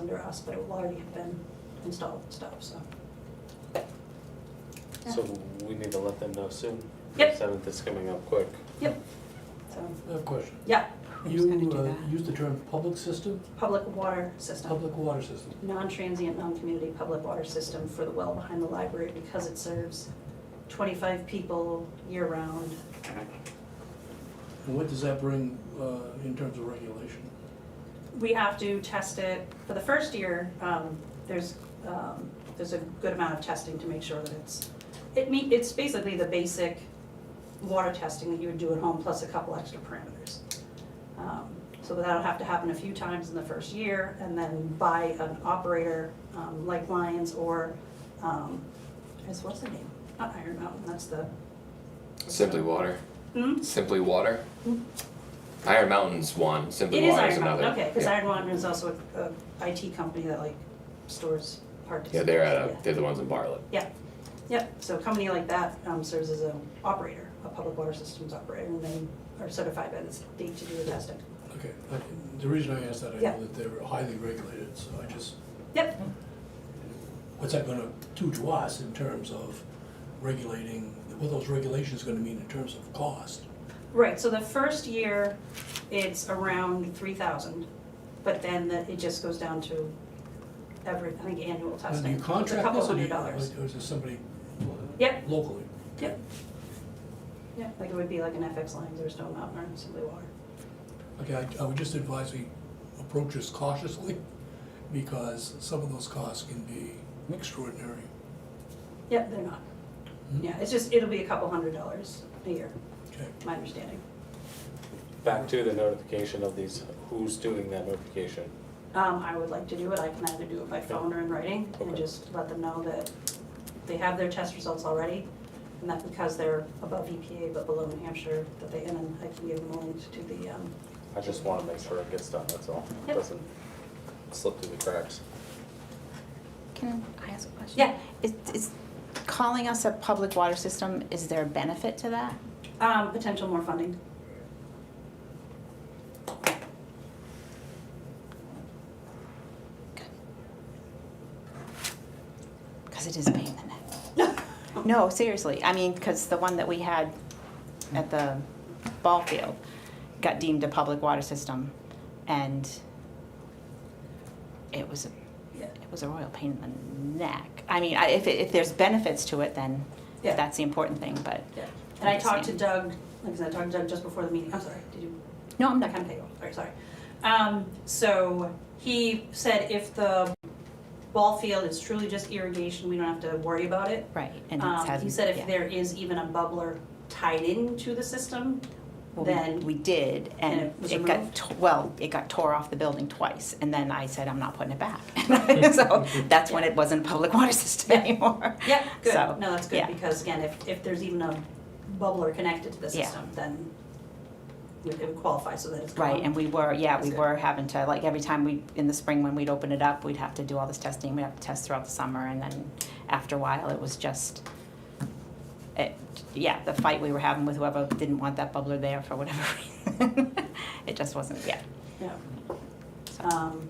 under us, but it will already have been installed and stuff, so. So we need to let them know soon. Yep. Seventh is coming up quick. So, I have a question. yeah, Who's gonna You do uh, that? used the term public system, public water system, public water system. non-transient, non-community public water system for the well behind the library because it serves twenty-five people year-round. And what does that bring uh, in terms of regulation? we have to test it, for the first year, um, there's, um, there's a good amount of testing to make sure that it's, it meet, it's basically the basic water testing that you would do at home, plus a couple extra parameters. Um, So that'll have to happen a few times in the first year, and then by an operator, um, like Lions or, um, is- what's the name? Not Iron Mountain, that's the, Simply Water. hmm? Simply Water. Mm. Iron Mountain's one. Simply It is Water's Iron Mountain, another. okay, because yeah. Iron Mountain is also a, a IT company that like stores hard disks. yeah, they're at a, Yeah. they're the ones in Bartlett. Yep, so a company like that um, serves as an operator, a public water systems operator, and they are certified by the state to do the testing. Okay, uh, the reason I asked that, I Yeah. know that they're highly regulated, so I just, Yep, what's that gonna do to us in terms of regulating, what those regulations gonna mean in terms of cost? right, so the first year, it's around three thousand, but then the- it just goes down to every, I think, annual And do testing. you It's contract A couple this or do hundred you- dollars. Or is it somebody Yep, locally? Yep. yeah, like it would be like an FX Lines or Stone Mountain or Simply Water. Okay, I- I would just advise we approach this cautiously, because some of those costs can be extraordinary. Yep, they're not. Hmm. Yeah, it's just, it'll be a couple hundred dollars a year, Okay, my understanding. Back to the notification of these, who's doing that notification? Um, I would like to do it, I can either do it by phone or in writing, and Okay. just let them know that they have their test results already, and that because they're above EPA but below New Hampshire, that they, and then I can give them a link to the, um, I just wanna make sure it gets done, that's all. Yep. Doesn't slip through the cracks. Can I ask a question? Yeah. Is, is calling us a public water system, is there a benefit to that? um, potential more funding. Because it is a pain in the neck. No, seriously, I mean, because the one that we had at the ball field got deemed a public water system, and it was, a Yeah. it was a royal pain in the neck. I mean, I- if, it- if there's benefits to it, then Yeah. that's the important thing, but, Yeah. And I talked to Doug, like I said, I talked to Doug just before the meeting, I'm sorry, did you? no, I'm I'm not not gonna take off, sorry, sorry. Um, so he said if the ball field is truly just irrigation, we don't have to worry about it. Right, and Um, it has. He said yeah. if there is even a bubbler tied into the system, Well, we- then- We did, and and it was it got, removed? t- well, it got tore off the building twice, and then I said, I'm not putting it back. So that's when it wasn't a public water system Yeah. anymore. yeah, good, So, no, that's good, yeah. because again, if, if there's even a bubbler connected to the Yeah. system, then we it would qualify so that it's gone. Right, and we were, yeah, That's we good. were having to, like, every time we, in the spring when we'd open it up, we'd have to do all this testing, we'd have to test throughout the summer, and then after a while, it was just, it, yeah, the fight we were having with whoever didn't want that bubbler there for whatever reason. It just wasn't, yeah. Yeah. Um,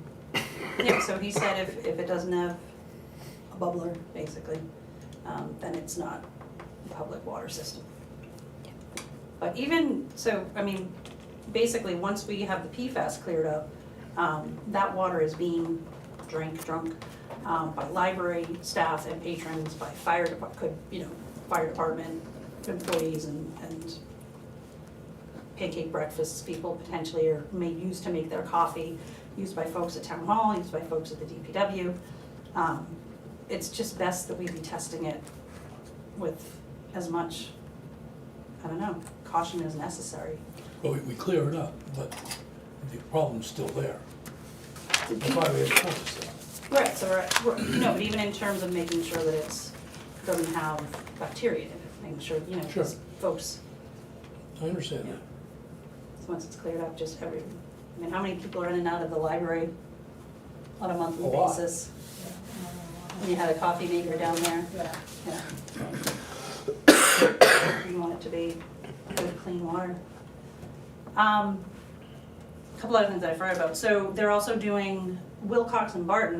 yeah, so he said if, if it doesn't have a bubbler, basically, um, then it's not a public water system. But even, so, I mean, basically, once we have the PFAS cleared up, um, that water is being drank, drunk, um, by library staff and patrons, by fire depart, could, you know, fire department employees and, and pancake breakfasts people potentially are made, used to make their coffee, used by folks at town hall, used by folks at the DPW. Um, It's just best that we be testing it with as much, I don't know, caution as necessary. well, we- we clear it up, but the problem's still there. That's why we have a court system. Right, so uh, we're, we're, no, but even in terms of making sure that it's, doesn't have bacteria in it, making sure, you know, 'cause Sure. folks, I understand that. once it's cleared up, just every, I mean, how many people are in and out of the library on a monthly A lot. basis? And you had a coffee maker down there? Yeah. Yeah. You want it to be good, clean water. Um, Couple other things that I forgot about. So they're also doing Wilcox and Barton